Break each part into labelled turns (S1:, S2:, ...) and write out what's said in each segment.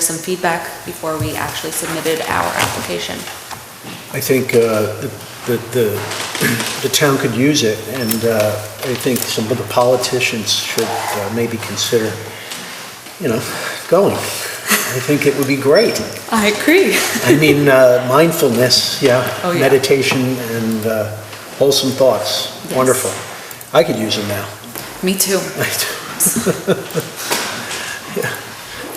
S1: some feedback before we actually submitted our application.
S2: I think uh, the, the, the town could use it, and uh, I think some of the politicians should uh, maybe consider, you know, going. I think it would be great.
S1: I agree.
S2: I mean, uh, mindfulness, yeah,
S1: Oh, yeah.
S2: meditation and uh, wholesome thoughts,
S1: Yes.
S2: wonderful. I could use them now.
S1: Me too.
S2: Yeah.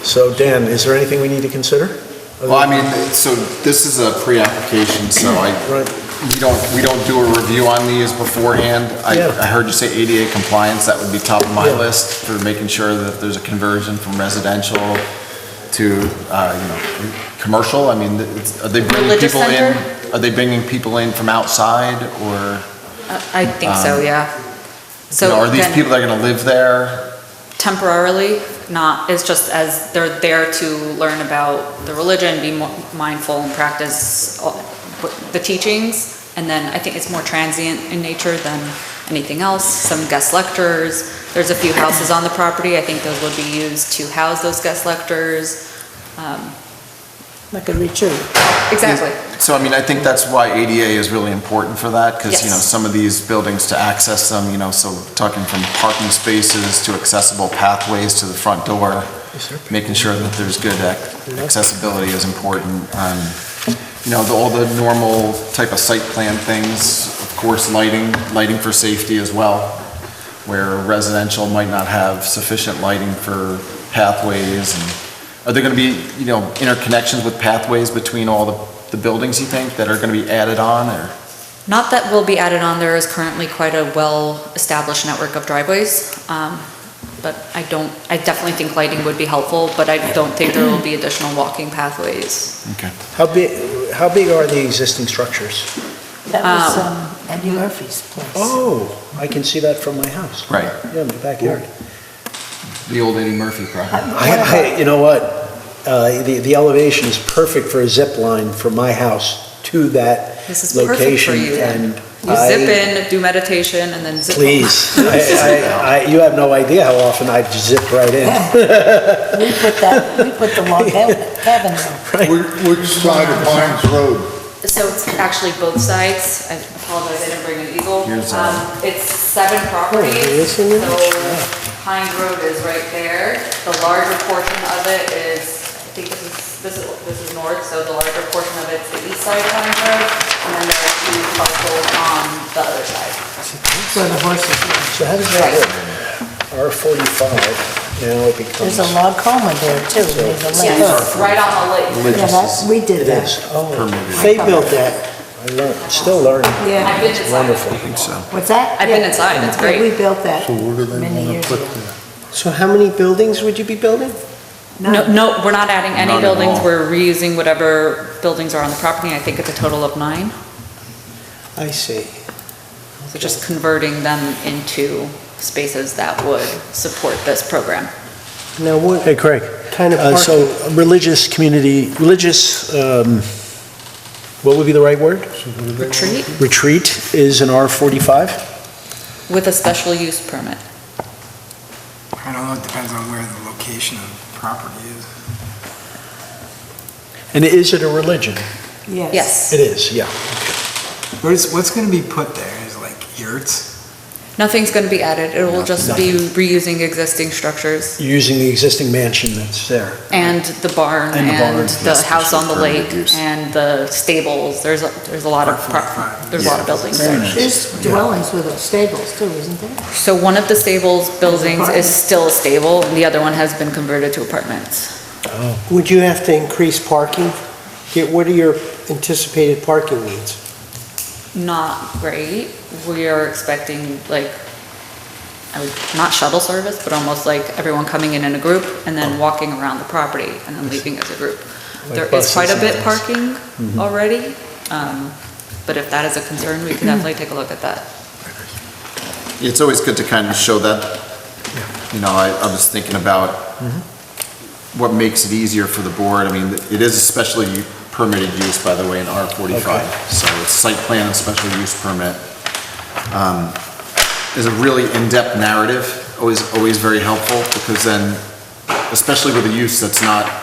S2: So Dan, is there anything we need to consider?
S3: Well, I mean, so this is a pre-application, so I,
S2: Right.
S3: we don't, we don't do a review on these beforehand. I,
S2: Yeah.
S3: I heard you say ADA compliance, that would be top of my
S2: Yeah.
S3: list for making sure that there's a conversion from residential to, uh, you know, commercial. I mean, it's- are they bringing
S1: Religious
S3: people in?
S1: center?
S3: Are they bringing people in from outside or,
S1: I think so, yeah.
S3: you know,
S1: So
S3: Um, are these
S1: then
S3: people that are gonna live there?
S1: temporarily, not, it's just as they're there to learn about the religion, be mo- mindful and practice all- the teachings. And then I think it's more transient in nature than anything else. Some guest lecturers, there's a few houses on the property. I think those would be used to house those guest lecturers.
S4: Like a retreat.
S1: Exactly.
S3: So, I mean, I think that's why ADA is really important for that, because, you know,
S1: Yes.
S3: some of these buildings to access them, you know, so talking from parking spaces to accessible pathways to the front door, making sure that there's good ac- accessibility is important. Um, You know, the- all the normal type of site plan things, of course, lighting, lighting for safety as well, where residential might not have sufficient lighting for pathways and are there going to be, you know, interconnections with pathways between all the, the buildings, you think, that are going to be added on, or?
S1: Not that will be added on, there is currently quite a well-established network of driveways, um, but I don't, I definitely think lighting would be helpful, but I don't think there will be additional walking pathways.
S3: Okay.
S2: How big, how big are the existing structures?
S4: That was
S1: Um,
S4: um, Andy Murphy's place.
S2: Oh, I can see that from my house.
S3: Right.
S2: Yeah, my backyard.
S3: The old Eddie Murphy property.
S2: I, I, you know what? Uh, the, the elevation is perfect for a zip line from my house to that
S1: This is perfect for
S2: location.
S1: you.
S2: And
S1: You zip
S2: I,
S1: in, do meditation, and then zip.
S2: please, I, I, I, you have no idea how often I zip right in.
S4: We put that, we put the log cabin cabin there.
S5: Which which side of Pines Road?
S1: So it's actually both sides, I apologize, I didn't bring an eagle.
S3: Here's a-
S1: Um, It's seven
S2: Oh, it
S1: properties,
S2: is
S1: so
S2: in there?
S1: Pine Grove is right there. The larger portion of it is, I think this is, this is, this is north, so the larger portion of it's the east side of Pine Grove, and then there are two parcels on the other side.
S4: where the horses.
S2: So how does that work? R forty-five, now it becomes.
S4: There's a log coma there too. There's a lake.
S1: Yes, right on the lake.
S4: Yeah, that's, we did
S2: It is,
S4: that.
S2: oh,
S3: Permitted.
S6: They built that.
S2: I learned, still learning.
S1: I've
S4: Yeah.
S1: been inside.
S2: Wonderful.
S4: What's that?
S1: I've been
S4: Yeah.
S1: inside, it's
S4: Yeah,
S1: great.
S4: We built that
S5: So where do they
S4: many
S5: want
S4: years
S5: to put
S4: ago.
S5: that?
S6: So how many buildings would you be building?
S1: No, no, we're not adding
S3: Not
S1: any
S3: at
S1: buildings,
S3: all.
S1: we're reusing whatever buildings are on the property, I think it's a total of nine.
S6: I see.
S1: So just converting them into spaces that would support this program.
S6: Now, what
S2: Hey, Craig.
S6: kind of
S2: Uh, So
S6: parking?
S2: religious community, religious, um, what would be the right word?
S1: Retreat
S2: Retreat is an R45?
S1: with a special use permit.
S7: I don't know, it depends on where the location of the property is.
S2: And is it a religion?
S1: Yes.
S2: It is, yeah.
S7: What is, what's gonna be put there is like yurts?
S1: Nothing's going to be added. It will just be reusing existing structures
S2: Using the existing mansion that's there.
S1: and the barn
S2: And the barn,
S1: and the
S3: yes,
S1: house on the
S3: for
S1: lake
S3: use.
S1: and the stables. There's, a- there's a lot of, pro- there's a lot of buildings there.
S4: There's dwellings with those stables too, isn't there?
S1: So one of the stables buildings is still a stable and the other one has been converted to apartments.
S6: Would you have to increase parking? Get- What are your anticipated parking needs?
S1: Not great. We are expecting like, I would, not shuttle service, but almost like everyone coming in in a group and then walking around the property and then leaving as a group.
S2: Like
S1: There is quite a
S2: buses
S1: bit
S2: and Mm-hmm.
S1: parking already, um, but if that is a concern, we could definitely take a look at that.
S3: It's always good to kind of show that, you know, I, I was thinking about what makes it easier for the board. I mean, it is a special u- permitted use, by the way, in R forty-five. So it's site plan and special use permit. Um, Is a really in-depth narrative, always, always very helpful, because then, especially with a use that's not